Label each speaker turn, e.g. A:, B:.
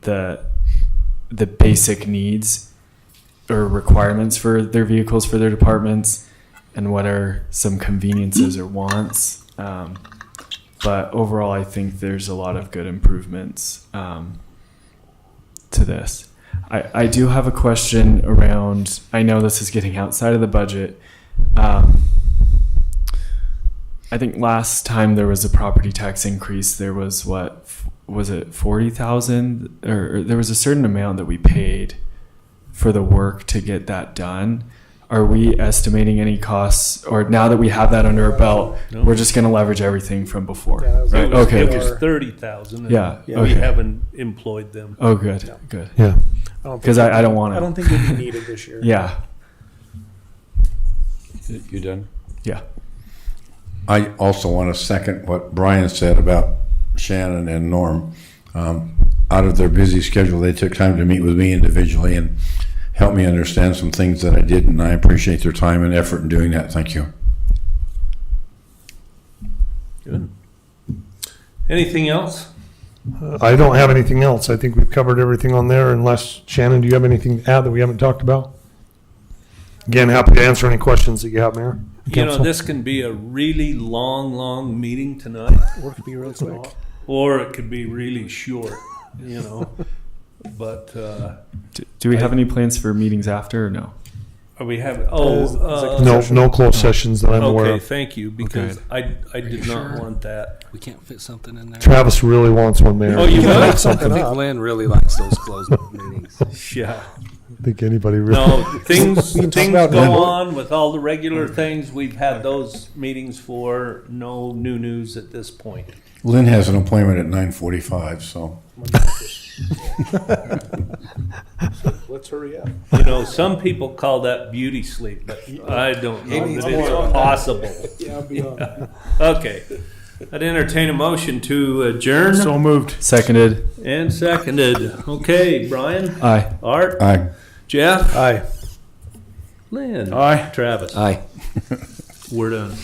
A: the the basic needs or requirements for their vehicles for their departments and what are some conveniences or wants. Um, but overall, I think there's a lot of good improvements um, to this. I, I do have a question around, I know this is getting outside of the budget. Um, I think last time there was a property tax increase, there was what, f- was it 40,000? Or, or there was a certain amount that we paid for the work to get that done. Are we estimating any costs, or now that we have that under our belt,
B: No.
A: we're just going to leverage everything from before?
C: Yeah, that was-
A: right?
B: It was-
A: Okay.
B: It
A: okay.
B: was thirty thousand.
A: Yeah,
B: We
A: okay.
B: haven't employed them.
A: Oh, good,
C: No.
A: good.
D: Yeah.
C: don't think
A: 'Cause I- I don't
C: it'll-
A: wanna-
C: I don't think it'll be needed this year.
A: Yeah,
E: You done?
A: yeah.
E: I also want to second what Brian said about Shannon and Norm. Um, Out of their busy schedule, they took time to meet with me individually and help me understand some things that I did, and I appreciate their time and effort in doing that. Thank you.
B: Good. Anything else?
D: I don't have anything else. I think we've covered everything on there unless, Shannon, do you have anything to add that we haven't talked about? Again, happy to answer any questions that you have, Mayor.
B: You know,
D: Council.
B: this can be a really long, long meeting tonight,
C: Work could be real quick.
B: or it could be really short, you know. But, uh,
A: Do, do we have any plans for meetings after or no?
B: are we having, oh.
C: Is- is it
B: uh,
D: No, no closed sessions that I'm aware
B: Okay,
D: of.
B: thank you, because I, I did
F: you
B: not
F: sure?
B: want that.
F: We can't fit something in there.
D: Travis really wants one, Mayor.
B: Oh, you
D: I
B: would?
C: something
F: I think
C: up.
F: Lynn really likes those closed meetings.
B: Yeah.
D: think anybody really.
B: No, things,
C: We can talk
B: things
C: about
B: go
C: that.
B: on with all the regular things. We've had those meetings for no new news at this point.
E: Lynn has an appointment at 9:45, so.
C: Let's hurry up.
B: You know, some people call that beauty sleep, but I don't know
C: needs
B: that it's
C: more of that.
B: possible.
C: Yeah, I'll be on that.
B: Okay. I'd entertain a motion to adjourn
D: So moved.
A: Seconded.
B: and seconded. Okay, Brian,
A: Aye.
B: Art,
E: Aye.
B: Jeff,
D: Aye.
B: Lynn,
D: Aye.
B: Travis.
F: Aye.
B: We're done.